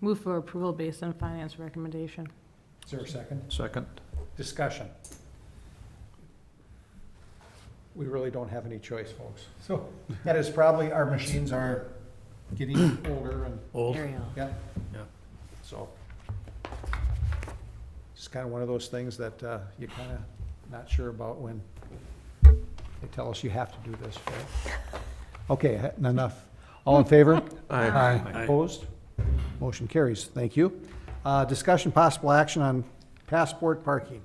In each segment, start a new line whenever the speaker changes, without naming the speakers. Move for approval based on finance recommendation.
Is there a second?
Second.
Discussion. We really don't have any choice, folks. So that is probably, our machines are getting older and,
Old.
Ariel.
yeah.
Yeah.
So. It's kind of one of those things that uh, you're kind of not sure about when they tell us you have to do this. right? Okay, enough. All in favor?
Aye.
Opposed? Motion carries. Thank you. Uh, Discussion, possible action on passport parking.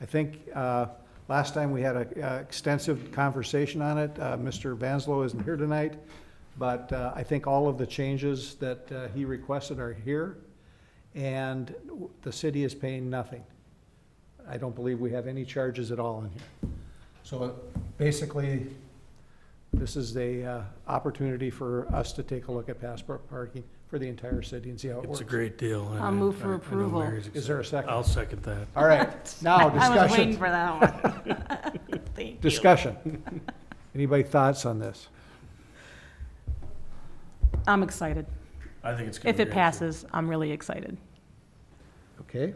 I think uh, last time we had an extensive conversation on it. Uh, Mr. Vanslo isn't here tonight, but uh, I think all of the changes that uh, he requested are here, and the city is paying nothing. I don't believe we have any charges at all in here. So uh, basically, this is a uh, opportunity for us to take a look at passport parking for the entire city and see how it
It's
works.
a great deal. and
I'll
I-
move for
I- I know
approval.
Mary's
Is there a
excited.
second?
I'll second that.
All right, now
I was waiting
discussion,
for that one. Thank you.
discussion. Anybody thoughts on this?
I'm excited.
I think it's. gonna
If
be
it
great.
passes, I'm really excited,
Okay,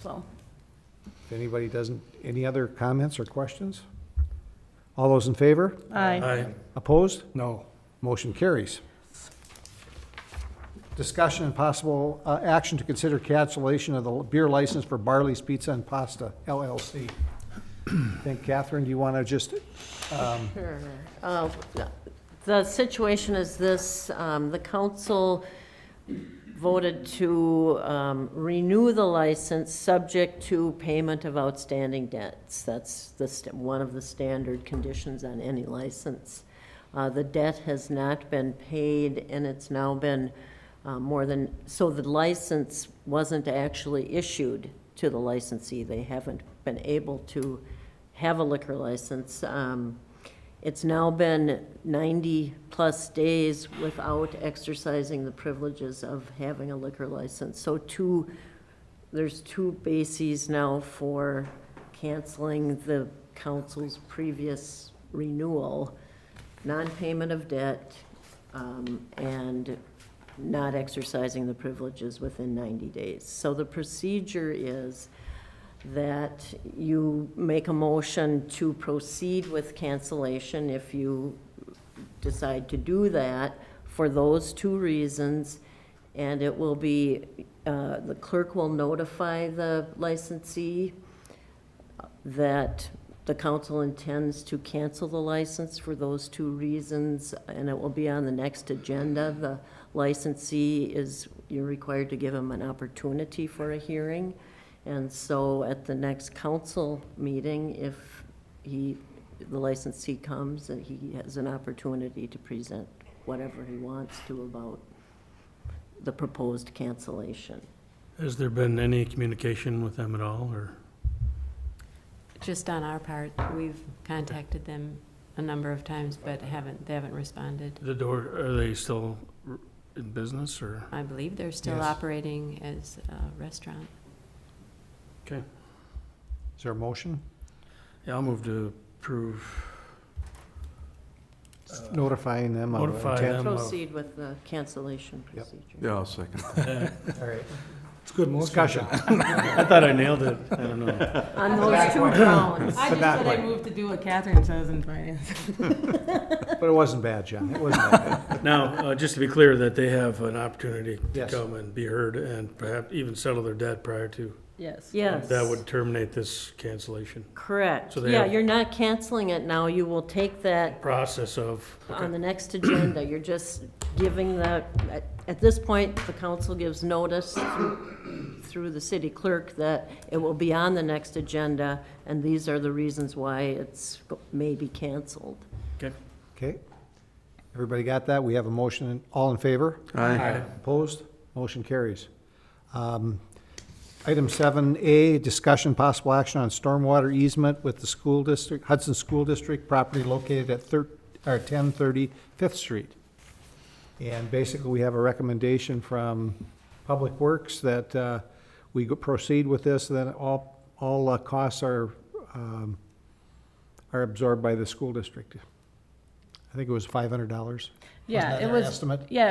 so.
if anybody doesn't, any other comments or questions? All those in favor?
Aye.
Aye.
Opposed?
No.
Motion carries. Discussion and possible uh, action to consider cancellation of the beer license for Barley's Pizza and Pasta LLC. I think Catherine, do you want to just, um,
Sure. Uh, The situation is this, um, the council voted to um, renew the license subject to payment of outstanding debts. That's the, st- one of the standard conditions on any license. Uh, The debt has not been paid, and it's now been uh, more than, so the license wasn't actually issued to the licensee. They haven't been able to have a liquor license. Um, It's now been 90-plus days without exercising the privileges of having a liquor license. So two, there's two bases now for canceling the council's previous renewal, non-payment of debt, um, and not exercising the privileges within 90 days. So the procedure is that you make a motion to proceed with cancellation if you decide to do that for those two reasons. And it will be, uh, the clerk will notify the licensee that the council intends to cancel the license for those two reasons, and it will be on the next agenda. The licensee is, you're required to give him an opportunity for a hearing. And so at the next council meeting, if he, the licensee comes, that he has an opportunity to present whatever he wants to about the proposed cancellation.
Has there been any communication with them at all, or?
Just on our part, we've contacted them a number of times, but haven't, they haven't responded.
The door, are they still r- in business, or?
I believe they're still
Yes.
operating as a restaurant.
Okay.
is there a motion?
Yeah, I'll move to approve,
Notifying them of
Notify
intent.
them. of-
Proceed with the cancellation
Yep.
procedure.
Yeah, I'll second.
All right.
It's good
Discussion.
I thought I nailed it. I don't know.
On those two grounds.
I just
that
said I
way.
moved to do what Catherine says in finance.
But it wasn't bad, John. It wasn't that bad.
Now, uh, just to be clear, that they have an opportunity to
Yes.
come and be heard and perhaps even settle their debt prior to.
Yes.
Yes.
That would terminate this cancellation
Correct.
So they
Yeah,
have-
you're not canceling it now. You will take that
process of.
on the next agenda. You're just giving the, at, at this point, the council gives notice through- through the city clerk that it will be on the next agenda, and these are the reasons why it's may be canceled.
Okay.
Okay. Everybody got that? We have a motion. All in favor?
Aye.
Opposed? Motion carries. Um, Item seven A, discussion possible action on stormwater easement with the school district, Hudson School District, property located at thir, or ten thirty Fifth Street. And basically, we have a recommendation from Public Works that, uh, we go- proceed with this, then all, all uh, costs are, um, are absorbed by the school district. I think it was five hundred dollars.
Yeah,
Wasn't that
it
their
was,
estimate?
yeah,